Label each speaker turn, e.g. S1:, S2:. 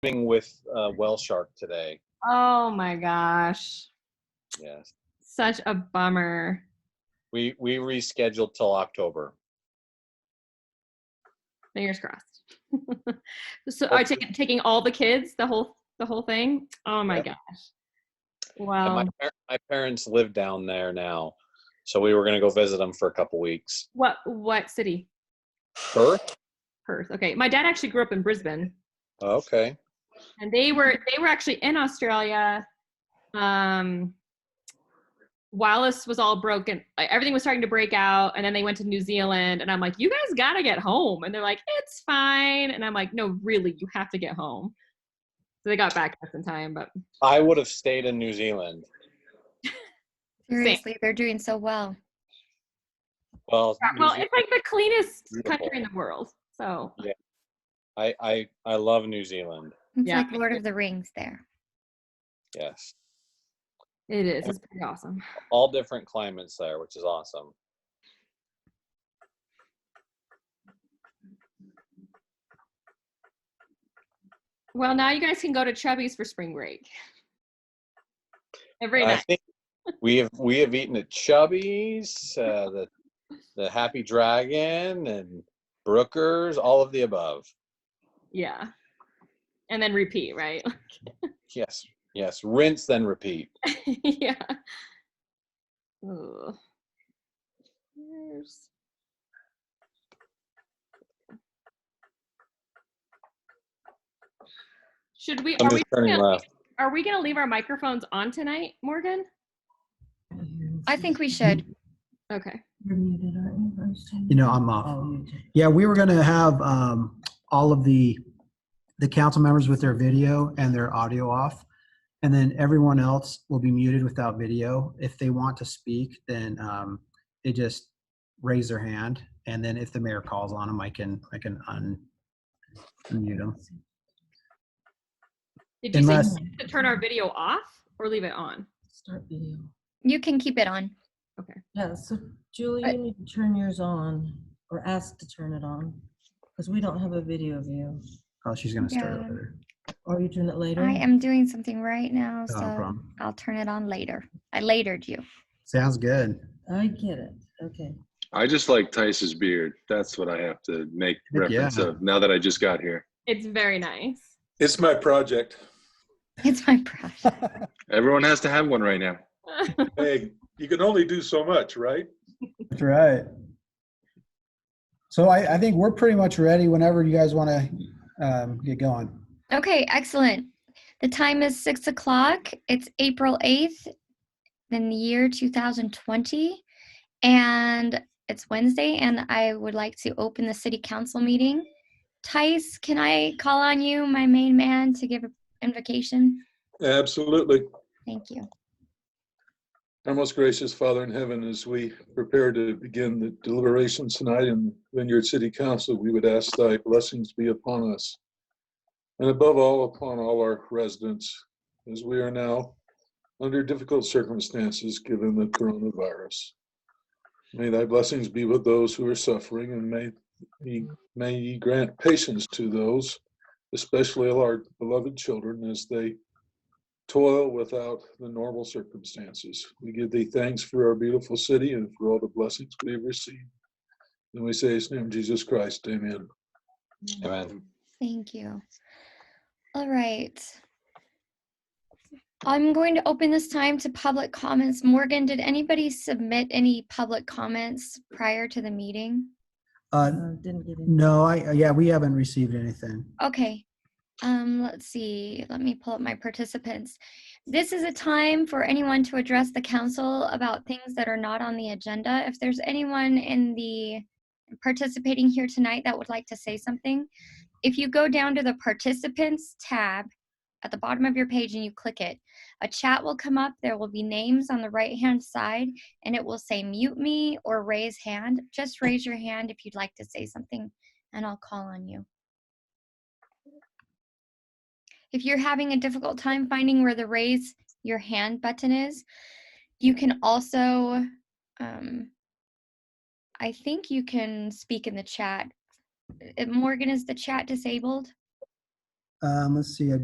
S1: meeting with uh, Well Shark today.
S2: Oh my gosh.
S1: Yes,
S2: Such a bummer.
S1: we we rescheduled till October.
S2: Fingers crossed. so are
S1: Hopefully.
S2: taking taking all the kids, the whole the whole thing? Oh my
S1: Yep.
S2: gosh.
S1: And
S2: Wow.
S1: my par- my parents live down there now, so we were gonna go visit them for a couple weeks.
S2: what what city?
S1: Perth.
S2: Perth. Okay. My dad actually grew up in Brisbane
S1: Okay.
S2: and they were they were actually in Australia um Wallace was all broken. like, Everything was starting to break out, and then they went to New Zealand. And I'm like, "You guys gotta get home." And they're like, "It's fine." And I'm like, "No, really, you have to get home." So they got back just in time, but
S1: I would have stayed in New Zealand.
S2: Same.
S3: Seriously, they're doing so well.
S1: Well,
S2: Yeah,
S1: New
S2: well,
S1: Zealand-
S2: it's like the cleanest country in
S1: Beautiful.
S2: the world. So
S1: I I I love New Zealand.
S3: It's
S2: Yeah.
S3: like Lord of the Rings there.
S1: Yes,
S2: it is. It's pretty awesome.
S1: all different climates there, which is awesome.
S2: Well, now you guys can go to Chubby's for spring break. Every
S1: I
S2: night.
S1: think we have we have eaten at Chubby's, uh, the the Happy Dragon, and Brooker's, all of the above.
S2: Yeah. And then repeat, right?
S1: Yes, yes. Rinse then repeat.
S2: yeah. Ooh. Here's- Should we
S1: I'm
S2: are
S1: just
S2: we
S1: turning
S2: gonna,
S1: left.
S2: are we gonna leave our microphones on tonight, Morgan?
S3: I think we should.
S2: Okay.
S4: You know, I'm off.
S5: Um,
S4: Yeah, we were going to have um, all of the the council members with their video and their audio off, and then everyone else will be muted without video. If they want to speak, then um, they just raise their hand, and then if the mayor calls on them, I can I can un, unmute them.
S2: Did you
S4: Unless
S2: say to turn our video off or leave it on?
S5: Start video.
S3: You can keep it on.
S5: Yeah, so Julie,
S3: I-
S5: you need to turn yours on or ask to turn it on because we don't have a video of you.
S4: oh, she's going to start
S3: Yeah.
S4: over.
S5: Or you turn it later.
S3: I am doing something right now, so
S4: No problem.
S3: I'll turn it on later. I latered you.
S4: Sounds good.
S5: I get it. Okay.
S6: I just like Tice's beard. That's what I have to make
S4: Heck yeah.
S6: reference of now that I just got here.
S2: It's very nice.
S7: It's my project.
S3: It's my brush.
S6: Everyone has to have one right now.
S7: Hey, you can only do so much, right?
S4: That's right. So I, I think we're pretty much ready whenever you guys want to um, get going.
S3: Okay, excellent. The time is six o'clock. It's April 8th in the year 2020. And it's Wednesday, and I would like to open the city council meeting. Tice, can I call on you, my main man, to give an invocation?
S7: Absolutely.
S3: Thank you.
S7: Our most gracious Father in heaven, as we prepare to begin the deliberations tonight in Vineyard City Council, we would ask thy blessings be upon us. And above all, upon all our residents, as we are now under difficult circumstances given the coronavirus. May thy blessings be with those who are suffering, and may ye, may ye grant patience to those, especially our beloved children, as they toil without the normal circumstances. We give thee thanks for our beautiful city and for all the blessings we have received. And we say, in the name of Jesus Christ, amen.
S1: Amen.
S3: Thank you. All right. I'm going to open this time to public comments. Morgan, did anybody submit any public comments prior to the meeting?
S4: Uh,
S5: Uh, didn't get it.
S4: No, I, yeah, we haven't received anything.
S3: Okay. Um, let's see. Let me pull up my participants. This is a time for anyone to address the council about things that are not on the agenda. If there's anyone in the participating here tonight that would like to say something, if you go down to the participants tab at the bottom of your page and you click it, a chat will come up. There will be names on the right hand side and it will say mute me or raise hand. Just raise your hand if you'd like to say something and I'll call on you. If you're having a difficult time finding where the raise your hand button is, you can also, um, I think you can speak in the chat. Uh, Morgan, is the chat disabled?
S4: Um, let's see, I